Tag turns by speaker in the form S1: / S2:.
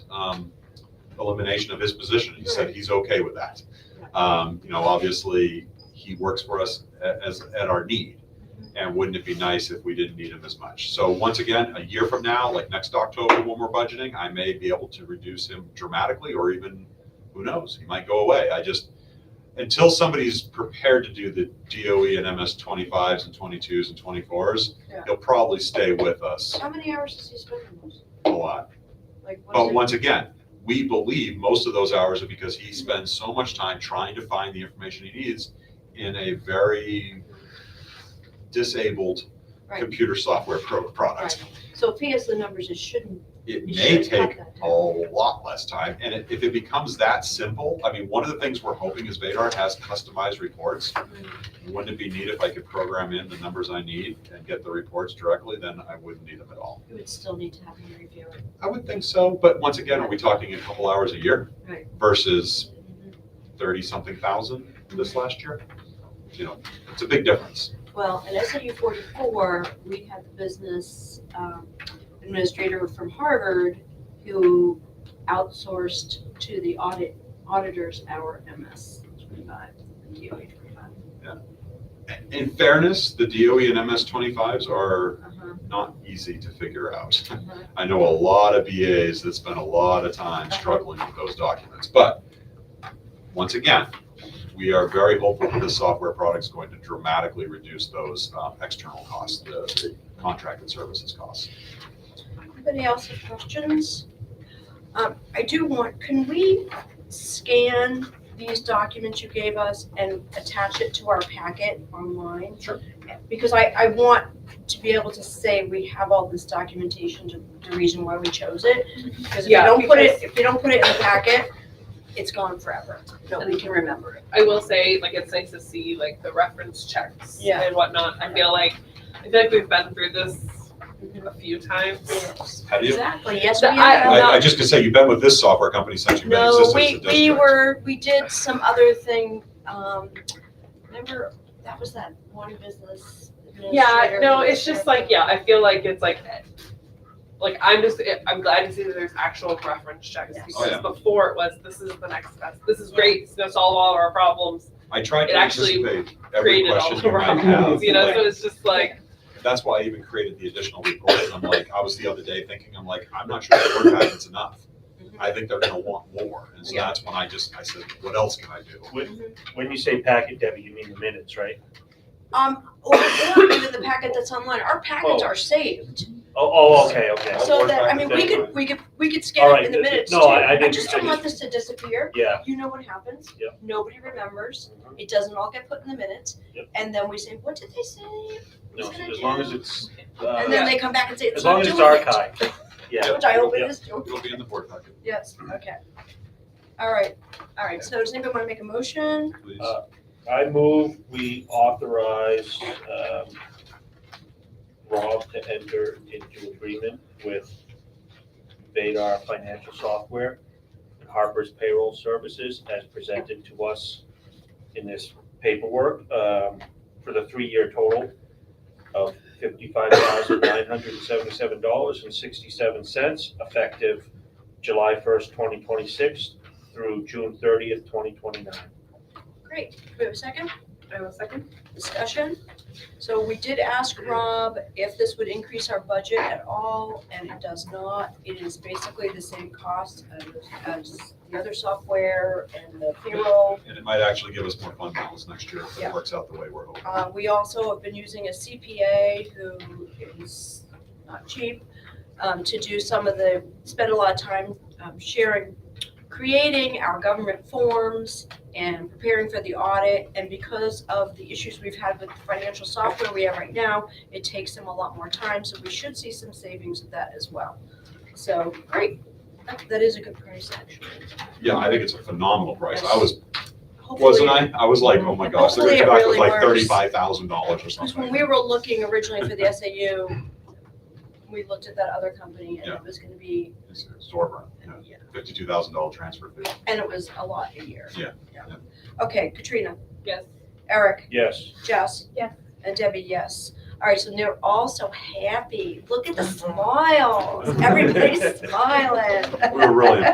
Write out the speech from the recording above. S1: um, elimination of his position. He said he's okay with that. Um, You know, obviously, he works for us a- as, at our need. And wouldn't it be nice if we didn't need him as much? So once again, a year from now, like next October, when we're budgeting, I may be able to reduce him dramatically or even, who knows, he might go away. I just, until somebody's prepared to do the DOE and MS twenty-fives and twenty-twos and twenty-fours,
S2: Yeah.
S1: he'll probably stay with us
S2: How many hours does he spend on those?
S1: a lot.
S2: Like, what's
S1: But
S2: it-
S1: once again, we believe most of those hours are because he spends so much time trying to find the information he needs in a very disabled
S2: Right,
S1: computer software pro- product.
S2: right. So if he has the numbers, it shouldn't,
S1: It
S2: You
S1: may
S2: should cut
S1: take
S2: that
S1: a lot less time, and it- if it becomes that simple, I mean, one of the things we're hoping is Vadar has customized reports. Wouldn't it be neat if I could program in the numbers I need and get the reports directly, then I wouldn't need them at all.
S2: you would still need to have him review it.
S1: I would think so, but once again, are we talking a couple hours a year?
S2: Right.
S1: Versus thirty-something thousand this last year? You know, it's a big difference.
S2: Well, in SAU forty-four, we had the business um, administrator from Harvard who outsourced to the audit, auditors our MS twenty-five, DOE twenty-five.
S1: In fairness, the DOE and MS twenty-fives are
S2: Uh-huh.
S1: not easy to figure out.
S2: Uh-huh.
S1: I know a lot of BAs that spend a lot of time struggling with those documents, but once again, we are very hopeful that this software product's going to dramatically reduce those um, external costs, the the contracted services costs.
S2: Anybody else have questions? Um, I do want, can we scan these documents you gave us and attach it to our packet online?
S1: Sure.
S2: Because I, I want to be able to say we have all this documentation to the reason why we chose it. Because if you
S3: Yeah,
S2: don't put it,
S3: because-
S2: if you don't put it in the packet, it's gone forever. Nobody can remember it.
S3: I will say, like, it's nice to see like the reference checks
S2: Yeah.
S3: and whatnot. I feel like I feel like we've been through this a few times.
S1: Have you?
S2: Exactly, yes, we
S3: The-
S2: have.
S3: I- I'm
S1: I, I
S3: not-
S1: just could say, you've been with this software company since you've been in
S2: No,
S1: existence.
S2: we,
S1: It does
S2: we
S1: great.
S2: were, we did some other thing, um, remember, that was that one business
S3: Yeah,
S2: administrator.
S3: no, it's just like yeah. I feel like it's like like I'm just I'm glad to see that there's actual reference checks
S2: Yes.
S1: Oh,
S3: because
S1: yeah.
S3: before it was this is the next best. This is great. It's gonna solve all of our problems.
S1: I tried
S3: it
S1: to
S3: actually
S1: anticipate every
S3: Created all
S1: question
S3: of
S1: you
S3: our
S1: might
S3: problems.
S1: have.
S3: You know,
S1: Like,
S3: so it's just like
S1: That's why I even created the additional report. I'm like, I was the other day thinking, I'm like, I'm not sure the word packet's enough. I think they're gonna want more. And so
S3: Mm-hmm. Yeah.
S1: that's when I just, I said, what else can I do?
S4: When, when you say packet, Debbie, you mean the minutes, right?
S2: Um, or, or even the packet that's online, our packets are saved,
S4: Oh, oh, okay, okay.
S1: I'll
S2: so
S1: work
S2: that, I
S1: back
S2: mean,
S1: to
S2: we
S1: that
S2: could,
S1: one.
S2: we could, we could scan it
S4: Alright,
S2: in the
S4: th- th-
S2: minutes too.
S4: no, I- I didn't-
S2: just
S4: I
S2: don't want
S4: just-
S2: this to disappear,
S4: Yeah.
S2: you know what happens?
S4: Yep.
S2: Nobody remembers, it doesn't all get put in the minutes,
S4: Yep.
S2: and then we say, what did they say?
S4: No, as long as it's, uh,
S2: And then they come back and say, it's
S4: as
S2: not
S4: long as
S2: doing
S4: it's
S2: it.
S4: archived, yeah.
S2: Which I hope it
S4: Yep.
S2: is doing.
S1: It'll be in the board packet,
S2: Yes, okay. All right, all right, so does anybody want to make a motion?
S1: please.
S4: Uh, I move we authorize, um, Rob to enter into agreement with Vadar Financial Software and Harper's Payroll Services as presented to us in this paperwork, um, for the three-year total of fifty-five thousand nine hundred and seventy-seven dollars and sixty-seven cents, effective July first, twenty twenty-six through June thirtieth, twenty twenty-nine.
S2: Great, do we have a second?
S3: I have a second.
S2: Discussion? So we did ask Rob if this would increase our budget at all, and it does not. It is basically the same cost as- as the other software and the payroll.
S1: And it might actually give us more fund balance next year if
S2: Yeah.
S1: it works out the way we're hoping.
S2: Uh, we also have been using a CPA who is not cheap, um, to do some of the, spend a lot of time, um, sharing, creating our government forms and preparing for the audit. And because of the issues we've had with the financial software we have right now, it takes them a lot more time, so we should see some savings of that as well. So, great, that, that is a good price, actually.
S1: Yeah, I think it's a phenomenal price. I
S2: Yes.
S1: was,
S2: Hopefully-
S1: wasn't I? I was like, oh my gosh, they're
S2: Hopefully
S1: gonna
S2: it
S1: come back
S2: really
S1: with like
S2: works.
S1: thirty-five thousand dollars or
S2: Because
S1: something.
S2: when we were looking originally for the SAU, we looked at that other company and it was gonna be,
S1: It's- it's Zorba, yeah.
S2: yeah,
S1: fifty-two thousand dollar transfer fee.
S2: and it was a lot a year.
S1: Yeah, yeah.
S2: Okay, Katrina,
S3: Yes.
S2: Eric,
S4: Yes.
S2: Jess.
S3: Yes.
S2: And Debbie, yes. All right, so they're all so happy. Look at the smiles. Everybody's smiling.
S1: We were really